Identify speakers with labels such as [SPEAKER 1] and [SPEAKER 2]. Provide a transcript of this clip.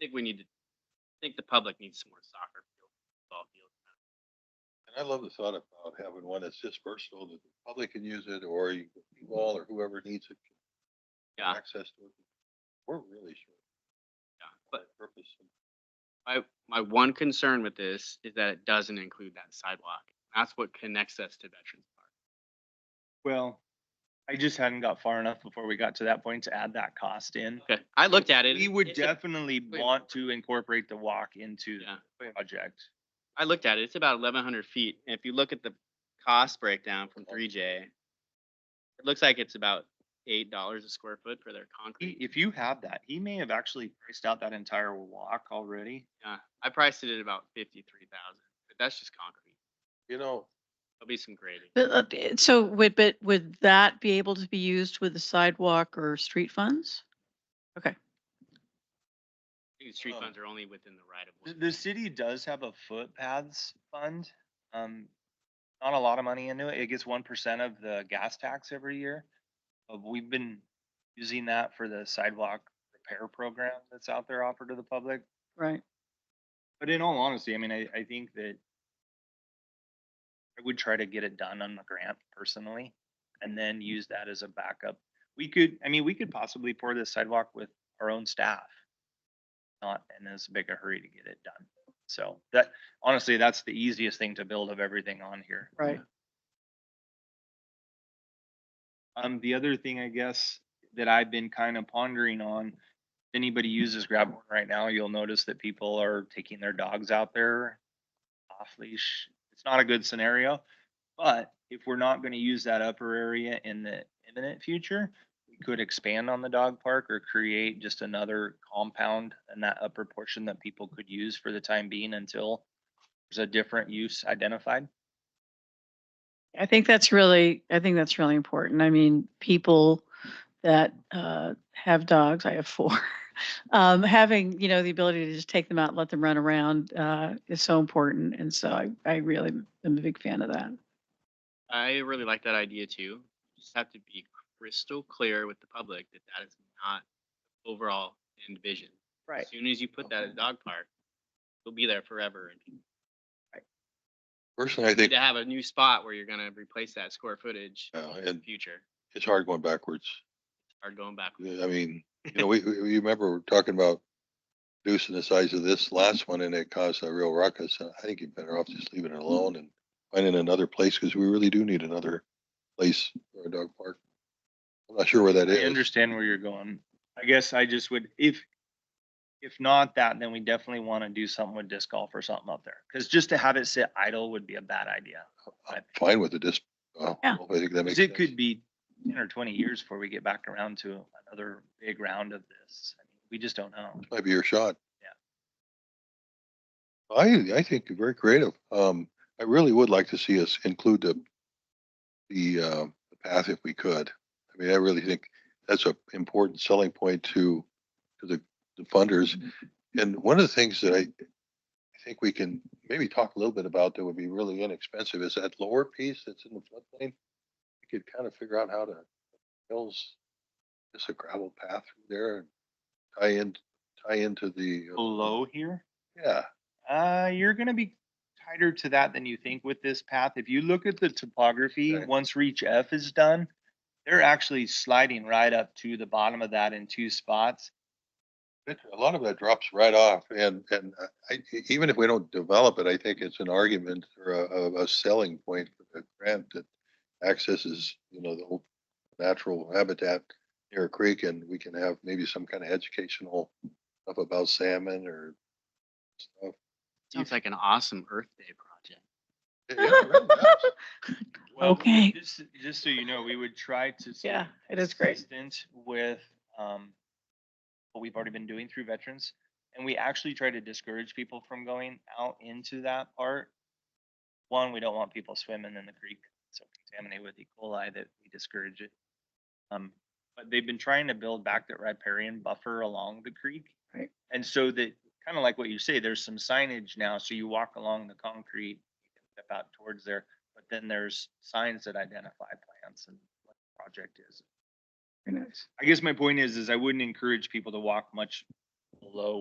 [SPEAKER 1] think we need to, I think the public needs some more soccer field, football field.
[SPEAKER 2] And I love the thought about having one that's just versatile, that the public can use it, or you, you all, or whoever needs it. can
[SPEAKER 1] Yeah.
[SPEAKER 2] Access to it. We're really sure.
[SPEAKER 1] Yeah, But
[SPEAKER 2] Purpose.
[SPEAKER 1] my, my one concern with this is that it doesn't include that sidewalk. That's what connects us to Veterans Park.
[SPEAKER 3] Well, I just hadn't got far enough before we got to that point to add that cost in.
[SPEAKER 1] Okay, I looked at it.
[SPEAKER 3] We would
[SPEAKER 1] It's a-
[SPEAKER 3] definitely
[SPEAKER 1] wait.
[SPEAKER 3] want to incorporate the walk into
[SPEAKER 1] Yeah.
[SPEAKER 3] the project.
[SPEAKER 1] I looked at it, it's about eleven hundred feet, and if you look at the cost breakdown from three J, it looks like it's about eight dollars a square foot for their
[SPEAKER 3] He,
[SPEAKER 1] concrete.
[SPEAKER 3] if you have that, he may have actually priced out that entire walk already.
[SPEAKER 1] Yeah, I priced it at about fifty-three thousand, but that's just concrete.
[SPEAKER 2] You know,
[SPEAKER 1] There'll be some grading.
[SPEAKER 4] But, uh, b- so would, but would that be able to be used with the sidewalk or street funds?
[SPEAKER 1] I think the Street
[SPEAKER 3] Oh.
[SPEAKER 2] Um,
[SPEAKER 1] funds are only within the right
[SPEAKER 3] The,
[SPEAKER 1] of way.
[SPEAKER 3] the city does have a footpaths fund. Um, not a lot of money into it. It gets one percent of the gas tax every year. But we've been using that for the sidewalk repair program that's out there offered to the public.
[SPEAKER 4] Right.
[SPEAKER 3] But in all honesty, I mean, I, I think that I would try to get it done on the grant personally and then use that as a backup. We could, I mean, we could possibly pour this sidewalk with our own staff. Not in as big a hurry to get it done. So that, honestly, that's the easiest thing to build of everything on here.
[SPEAKER 4] Right.
[SPEAKER 3] Um, the other thing, I guess, that I've been kind of pondering on, if anybody uses grab Horn right now, you'll notice that people are taking their dogs out there off leash. It's not a good scenario, but if we're not gonna use that upper area in the imminent future, we could expand on the dog park or create just another compound in that upper portion that people could use for the time being until there's a different use identified.
[SPEAKER 4] I think that's really, I think that's really important. I mean, people that uh, have dogs, I have four. Um, having, you know, the ability to just take them out, and let them run around uh, is so important. And so I, I really am a big fan of that.
[SPEAKER 1] I really like that idea too. Just have to be crystal clear with the public that that is not overall end vision.
[SPEAKER 4] Right.
[SPEAKER 1] As soon as you put that at a dog park, it'll be there forever. and you
[SPEAKER 2] personally, I
[SPEAKER 1] Need
[SPEAKER 2] think,
[SPEAKER 1] to have a new spot where you're gonna replace that square footage
[SPEAKER 2] uh,
[SPEAKER 1] in the
[SPEAKER 2] and
[SPEAKER 1] future,
[SPEAKER 2] it's hard going backwards.
[SPEAKER 1] or going backwards.
[SPEAKER 2] I mean, you know, we, we we remember we're talking about reducing the size of this last one and it caused a real ruckus. And I think you're better off just leaving it alone and finding another place because we really do need another place for a dog park. I'm not sure where that
[SPEAKER 3] I
[SPEAKER 2] is.
[SPEAKER 3] understand where you're going. I guess I just would, if, if not that, then we definitely want to do something with disc golf or something up there. Because just to have it sit idle would be a bad idea.
[SPEAKER 2] I'm fine with it. Just, uh,
[SPEAKER 4] Yeah.
[SPEAKER 2] I think that
[SPEAKER 3] 'Cause
[SPEAKER 2] makes
[SPEAKER 3] it
[SPEAKER 2] sense.
[SPEAKER 3] could be ten or twenty years before we get back around to another big round of this. I mean, We just don't know.
[SPEAKER 2] Might be your shot. I, I think you're very creative. Um, I really would like to see us include the, the, uh, the path if we could. I mean, I really think that's a important selling point to, to the, the funders. And one of the things that I, I think we can maybe talk a little bit about that would be really inexpensive is that lower piece that's in the floodplain. We could kind of figure out how to, hills, just a gravel path through there and tie in, tie into the. uh,
[SPEAKER 3] Below here,
[SPEAKER 2] Yeah.
[SPEAKER 3] uh, you're gonna be tighter to that than you think with this path. If you look at the topography,
[SPEAKER 2] Okay.
[SPEAKER 3] once reach F is done, they're actually sliding right up to the bottom of that in two spots.
[SPEAKER 2] It- A lot of that drops right off and, and uh, I- I, even if we don't develop it, I think it's an argument or a, a, a selling point for the grant that accesses, you know, the whole natural habitat near a creek and we can have maybe some kind of educational stuff about salmon or stuff.
[SPEAKER 1] Sounds like an awesome Earth Day project.
[SPEAKER 2] Yeah, it really does.
[SPEAKER 3] Well,
[SPEAKER 4] Okay.
[SPEAKER 3] Just, just so you know, we would try to. stay
[SPEAKER 4] Yeah, it is great.
[SPEAKER 3] consistent With, um, what we've already been doing through veterans. And we actually try to discourage people from going out into that part. One, we don't want people swimming in the creek, so contaminated with E. coli that we discourage it. Um, but they've been trying to build back that riparian buffer along the creek.
[SPEAKER 4] Right.
[SPEAKER 3] And so that, kind of like what you say, there's some signage now, so you walk along the concrete, you can step out towards there, but then there's signs that identify plants and what the project is.
[SPEAKER 4] Very nice.
[SPEAKER 3] I guess my point is, is I wouldn't encourage people to walk much below